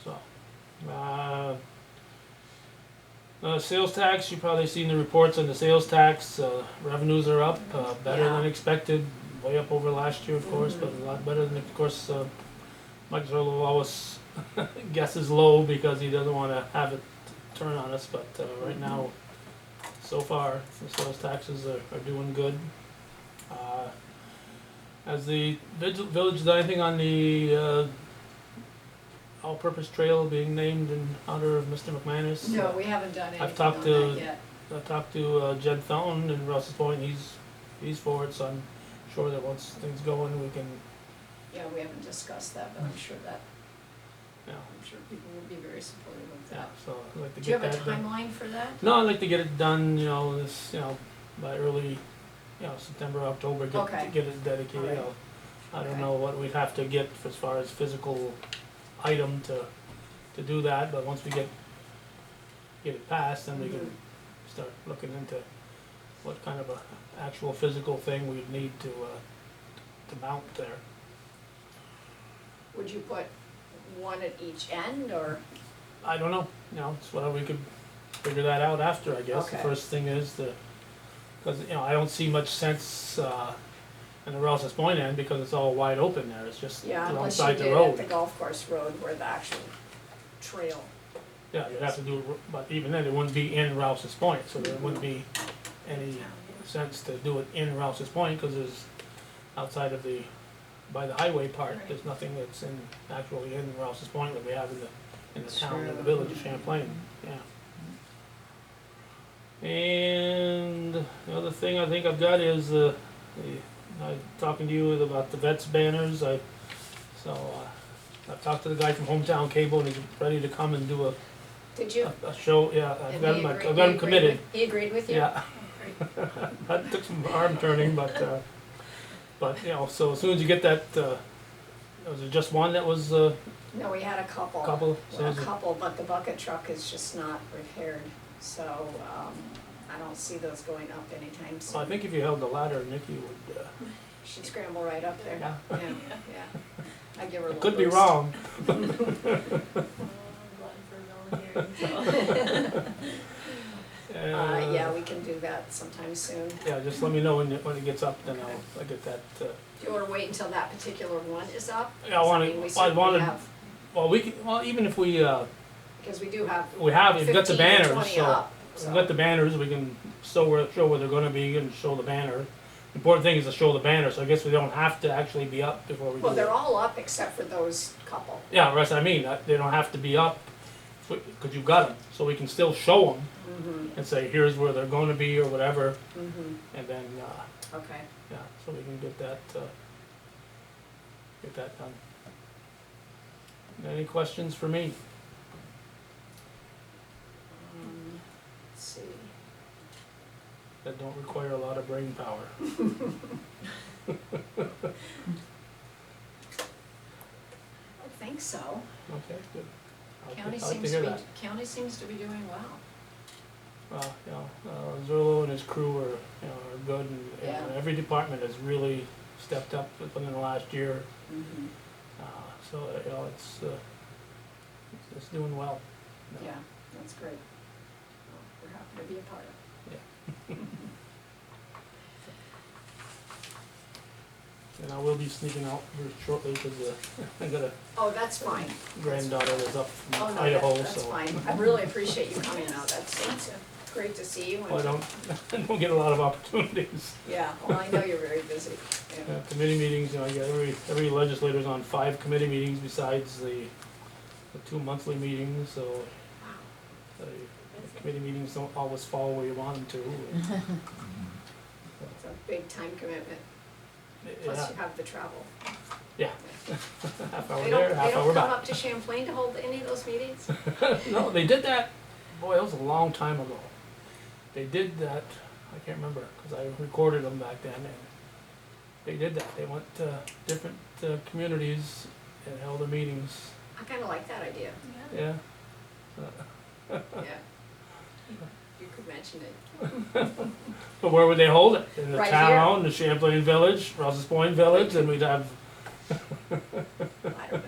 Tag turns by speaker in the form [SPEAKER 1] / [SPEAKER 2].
[SPEAKER 1] stuff. Uh, uh, sales tax, you've probably seen the reports on the sales tax, uh, revenues are up, uh, better than expected, way up over last year, of course, but a lot better than, of course, uh, Mike Zerlo always guesses low because he doesn't wanna have it turn on us, but, uh, right now, so far, the sales taxes are, are doing good. Uh, Has the vigil- village done anything on the, uh, all-purpose trail being named in honor of Mr. McManus?
[SPEAKER 2] No, we haven't done
[SPEAKER 1] I've
[SPEAKER 2] anything
[SPEAKER 1] talked
[SPEAKER 2] on
[SPEAKER 1] to-
[SPEAKER 2] that yet.
[SPEAKER 1] I talked to uh, Jed Thone in Russell's Point. He's he's for it, so I'm sure that once things go in, we can.
[SPEAKER 2] Yeah, we haven't discussed that, but I'm sure that,
[SPEAKER 1] You know,
[SPEAKER 2] I'm sure people will be very supportive of
[SPEAKER 1] yeah.
[SPEAKER 2] that.
[SPEAKER 1] So I'd like to
[SPEAKER 2] Do you
[SPEAKER 1] get
[SPEAKER 2] have a
[SPEAKER 1] that done.
[SPEAKER 2] timeline for that?
[SPEAKER 1] No, I'd like to get it done. You know, this you know by early, you know September October. Get
[SPEAKER 2] Okay.
[SPEAKER 1] get it dedicated.
[SPEAKER 2] All right.
[SPEAKER 1] You know, I don't
[SPEAKER 2] Okay.
[SPEAKER 1] know what we'd have to get as far as physical item to to do that, but once we get get it passed, then we can
[SPEAKER 2] Mm-hmm.
[SPEAKER 1] start looking into what kind of a actual physical thing we'd need to uh, to mount there.
[SPEAKER 2] Would you put one at each end or,
[SPEAKER 1] I don't know, you know, it's whatever we could figure that out after, I guess. The
[SPEAKER 2] Okay.
[SPEAKER 1] first thing is the, cause, you know, I don't see much sense, uh, in the Rouse's Point end because it's all wide open there, it's just
[SPEAKER 2] yeah, unless you
[SPEAKER 1] alongside
[SPEAKER 2] did
[SPEAKER 1] the
[SPEAKER 2] it at the
[SPEAKER 1] road.
[SPEAKER 2] golf course road where the actual trail.
[SPEAKER 1] Yeah, you'd have to do, it r- but even then, it wouldn't be in Rouse's Point, so there wouldn't be any sense to do it in Rouse's Point, cause there's outside of the, by the highway part,
[SPEAKER 2] Right.
[SPEAKER 1] there's nothing that's in, actually in Rouse's Point that we have in the, in the
[SPEAKER 2] That's
[SPEAKER 1] town, in the
[SPEAKER 2] true.
[SPEAKER 1] village of Champlain, yeah. And the other thing I think I've got is, uh, the- I, talking to you about the vets banners, I, so, uh, I've talked to the guy from Hometown Cable and he's ready to come and do a,
[SPEAKER 2] Did you?
[SPEAKER 1] a- a show, yeah, I've
[SPEAKER 2] And
[SPEAKER 1] got
[SPEAKER 2] he
[SPEAKER 1] him, I've
[SPEAKER 2] agreed-
[SPEAKER 1] got
[SPEAKER 2] he
[SPEAKER 1] him
[SPEAKER 2] agreed
[SPEAKER 1] committed,
[SPEAKER 2] with- He agreed with you?
[SPEAKER 1] yeah.
[SPEAKER 2] Oh, great.
[SPEAKER 1] That took some arm turning, but, uh, but, you know, so as soon as you get that, uh, was it just one that was a
[SPEAKER 2] No, we had a couple.
[SPEAKER 1] couple? So
[SPEAKER 2] A
[SPEAKER 1] is it-
[SPEAKER 2] couple, but the bucket truck is just not repaired, so, um, I don't see those going up anytime
[SPEAKER 1] so I
[SPEAKER 2] soon.
[SPEAKER 1] think if you held the ladder, Nikki would, uh,
[SPEAKER 2] She'd scramble right up there.
[SPEAKER 1] yeah,
[SPEAKER 2] Yeah, yeah. I give her a
[SPEAKER 1] I
[SPEAKER 2] little
[SPEAKER 1] could be
[SPEAKER 2] boost.
[SPEAKER 1] wrong.
[SPEAKER 2] Uh, yeah, we can do that sometime soon.
[SPEAKER 1] Yeah, just let me know when it, when it gets up, then I'll, I'll get that, uh,
[SPEAKER 2] Do you wanna wait until that particular one is up?
[SPEAKER 1] Yeah, I wanna-
[SPEAKER 2] mean, we
[SPEAKER 1] I
[SPEAKER 2] certainly
[SPEAKER 1] wanna-
[SPEAKER 2] have-
[SPEAKER 1] well, we can, well, even if we, uh,
[SPEAKER 2] Because we do have
[SPEAKER 1] we have, we've
[SPEAKER 2] fifteen
[SPEAKER 1] got the
[SPEAKER 2] or
[SPEAKER 1] banners,
[SPEAKER 2] twenty
[SPEAKER 1] so.
[SPEAKER 2] up,
[SPEAKER 1] We've got the banners, we can show where, show where they're gonna be and show the banner. Important thing is to show the banner, so I guess we don't have to actually be up before we do it.
[SPEAKER 2] Well, they're all up except for those couple.
[SPEAKER 1] Yeah, that's what I mean. Uh, They don't have to be up because you got them, so we can still show them
[SPEAKER 2] Mm-hmm,
[SPEAKER 1] and say, "Here's where they're going to be" or whatever,
[SPEAKER 2] mm-hmm,
[SPEAKER 1] and then uh,
[SPEAKER 2] okay.
[SPEAKER 1] yeah, so we can get that uh, get that done. Any questions for me?
[SPEAKER 2] Um, Let's see,
[SPEAKER 1] That don't require a lot of brain power.
[SPEAKER 2] I don't think so.
[SPEAKER 1] Okay, good. I'll-
[SPEAKER 2] County
[SPEAKER 1] I'd like
[SPEAKER 2] seems
[SPEAKER 1] hear
[SPEAKER 2] to be,
[SPEAKER 1] that.
[SPEAKER 2] county seems to be doing well.
[SPEAKER 1] Well, you know, uh, Zerlo and his crew are, you know, are good, and, and
[SPEAKER 2] Yeah.
[SPEAKER 1] every department has really stepped up within the last year.
[SPEAKER 2] Mm-hmm.
[SPEAKER 1] Uh, so, uh, you know, it's, uh, it's- it's doing well. you know.
[SPEAKER 2] Yeah, that's great. Well, We're happy to be a part of it.
[SPEAKER 1] And I will be sneaking out here shortly because I got a
[SPEAKER 2] Oh, that's fine.
[SPEAKER 1] granddaughter that's up from
[SPEAKER 2] Oh, no,
[SPEAKER 1] Idaho,
[SPEAKER 2] that- that's
[SPEAKER 1] so.
[SPEAKER 2] fine. I really appreciate you coming out. That's, that's great to see you. and-
[SPEAKER 1] I don't, I don't get a lot of opportunities.
[SPEAKER 2] Yeah, well, I know you're very busy. yeah.
[SPEAKER 1] Uh, Committee meetings, you know, I get every, every legislator's on five committee meetings besides the, the two monthly meetings, so the committee meetings don't always fall where you want them to.
[SPEAKER 2] It's a big time commitment, plus
[SPEAKER 1] Yeah,
[SPEAKER 2] you have the travel.
[SPEAKER 1] half hour
[SPEAKER 2] They don't,
[SPEAKER 1] there,
[SPEAKER 2] they
[SPEAKER 1] half
[SPEAKER 2] don't
[SPEAKER 1] hour
[SPEAKER 2] come
[SPEAKER 1] back.
[SPEAKER 2] up to Champlain to hold any of those meetings?
[SPEAKER 1] No, they did that, boy, that was a long time ago. They did that, I can't remember, cause I recorded them back then and they did that. They went to different uh, communities and held their meetings,
[SPEAKER 2] I kinda like that idea,
[SPEAKER 1] yeah.
[SPEAKER 2] yeah. You could mention it.
[SPEAKER 1] But where would they hold it? In the
[SPEAKER 2] Right
[SPEAKER 1] town, the Champlain Village, Rouse's Point Village, and we'd have,
[SPEAKER 2] I don't know.